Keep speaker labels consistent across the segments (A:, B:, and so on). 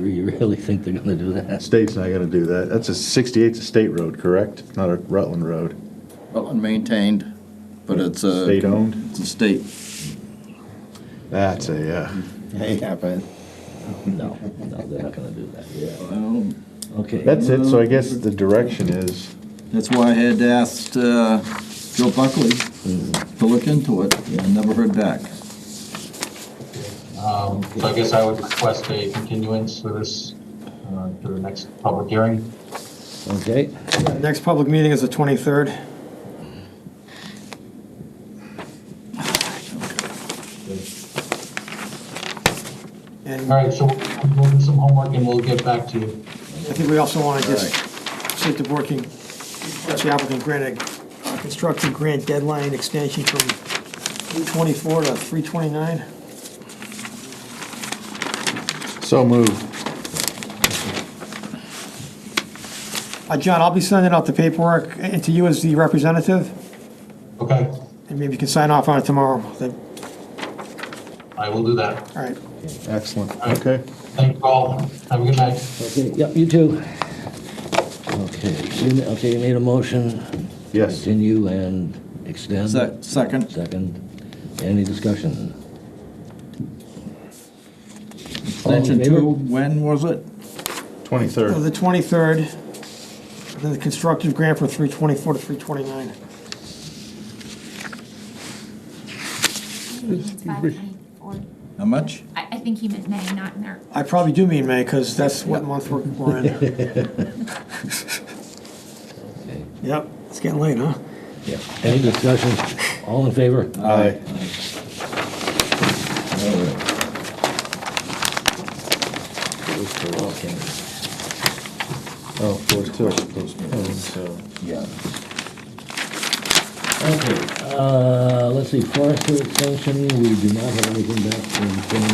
A: really think they're gonna do that?
B: State's not gonna do that. That's a 68's a state road, correct? It's not a Rutland road.
C: Well, and maintained, but it's a.
B: State-owned?
C: It's a state.
B: That's a, uh,
D: Yeah, but
A: No, no, they're not gonna do that. Yeah.
C: Well,
A: Okay,
B: that's it. So I guess the direction is,
C: That's why I had asked uh, Joe Buckley to look into it, and never heard back.
E: Um, So I guess I would request a continuance for this uh, to the next public hearing.
A: okay.
F: Next public meeting is the 23rd.
E: All
F: And I
E: right, so we'll do some homework and we'll get back to you.
F: think we also want to just, see if the board can, let the applicant grant a uh, construction grant deadline extension from 324 to 329.
B: so moved.
F: Uh, John, I'll be sending out the paperwork uh, to you as the representative,
E: Okay,
F: and maybe you can sign off on it tomorrow. Then,
E: I will do that.
F: all right.
B: Excellent. Okay.
E: Thank you all. Have a good night.
A: Okay, yep, you too. Okay, you, ma- okay, you made a motion.
B: Yes.
A: Continue and extend.
C: Se- Second,
A: Second. Any discussion?
C: extension
A: favor?
C: two, when was it?
F: So
B: 23rd.
F: The 23rd, then the constructive grant for 324 to 329.
G: It's five ninety-four.
C: How much?
G: I, I think he meant May, not March.
F: I probably do mean May, because that's what month we're- we're in. Yep, it's getting late, huh?
A: Yeah. Any discussion? All in favor?
B: Aye.
A: Okay.
B: Oh, four two. Oh, so-
A: Yeah. Okay, uh, let's see, forester extension, we do not have anything back from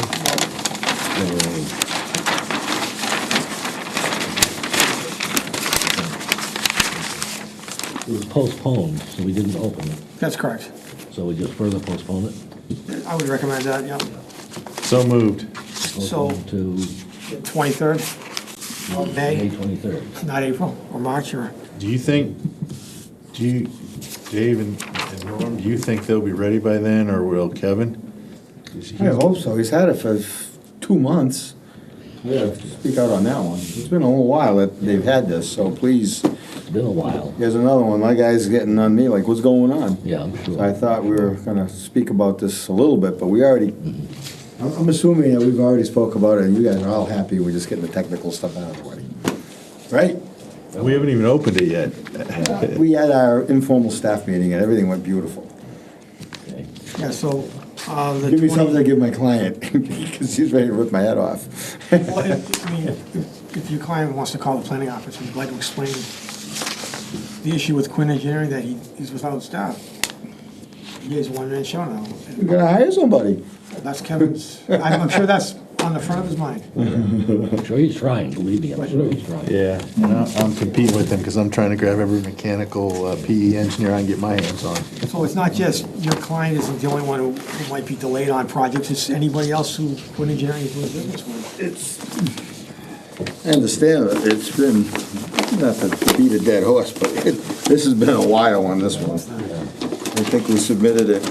A: James Milling. so- It was postponed, so we didn't open it,
F: That's correct.
A: so we just further postponed it.
F: I would recommend that, yep.
B: So moved.
F: So-
A: Postponed To
F: 23rd of
A: May
F: May,
A: twenty-third.
F: not April, or March, or,
B: Do you think, do you, Dave and and Norm, do you think they'll be ready by then or will Kevin?
D: I hope so. He's had it for f- two months. Yeah, speak out on that one. It's been a little while that they've had this, so please,
A: It's been a while,
D: here's another one. My guy's getting on me, like, what's going on?
A: yeah, I'm
D: So I
A: sure.
D: thought we were gonna speak about this a little bit, but we already, I'm, I'm assuming that we've already spoke about it, and you guys are all happy. We're just getting the technical stuff out of the way. Right?
B: We haven't even opened it yet.
D: We had our informal staff meeting and everything went beautiful.
A: Okay.
F: yeah, so, uh, the
D: Give me something
F: 20...
D: to give my client, because he's ready to rip my head off.
F: Well, if- I mean, if- If your client wants to call the planning office, we'd like to explain the issue with Quinn Engineering, that he is without staff. He is a one-man show now.
D: We're gonna hire somebody.
F: That's Kevin's, I'm I'm sure that's on the front of his mind.
A: I'm sure he's trying, believe me, I'm sure he's trying.
B: Yeah, and I- I'm competing with them because I'm trying to grab every mechanical uh, PE engineer I can get my hands on.
F: So it's not just your client isn't the only one who- who might be delayed on projects, it's anybody else who Quinn Engineering is doing business with.
D: I understand, that it's been, not to beat a dead horse, but it- this has been a while on this one. I think we submitted it.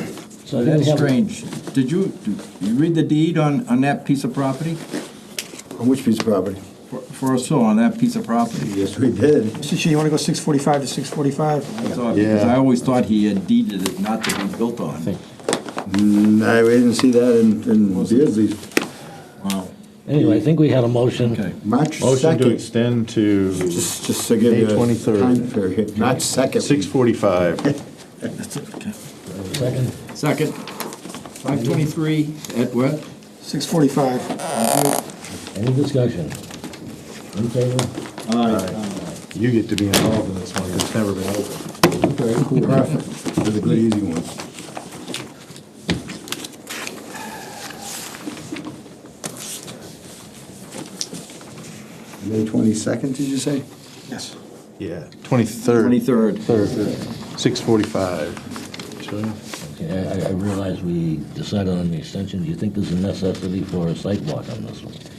A: So then we
C: That's
A: have-
C: strange. Did you, do you read the deed on, on that piece of property?
D: On which piece of property?
C: For- For us, so on that piece of property?
D: Yes, we did.
F: Mr. Chair, you want to go 645 to 645?
C: I thought- Because
B: Yeah.
C: I always thought he had deeded it not to be built on.
D: No, we Mm, didn't see that in, in Beardsley's.
C: Wow.
A: Anyway, I think we had a motion.
C: Okay.
D: March
B: Motion to
D: second.
B: extend to
D: Just, just to give you
B: May
D: a
B: 23rd.
D: time period, March second.
B: 6:45.
C: That's it, okay.
A: Second,
C: Second, 523 at what?
F: 645.
A: any discussion? In favor?
B: You get to be involved in this one, it's never been opened.
D: Perfect. They're the good easy ones. May twenty-second, did you say?
F: Yes.
B: Yeah, 23rd,
C: 23rd.
B: 6:45. Sure.
A: Okay, I I realize we decided on the extension. Do you think there's a necessity for a site walk on this one?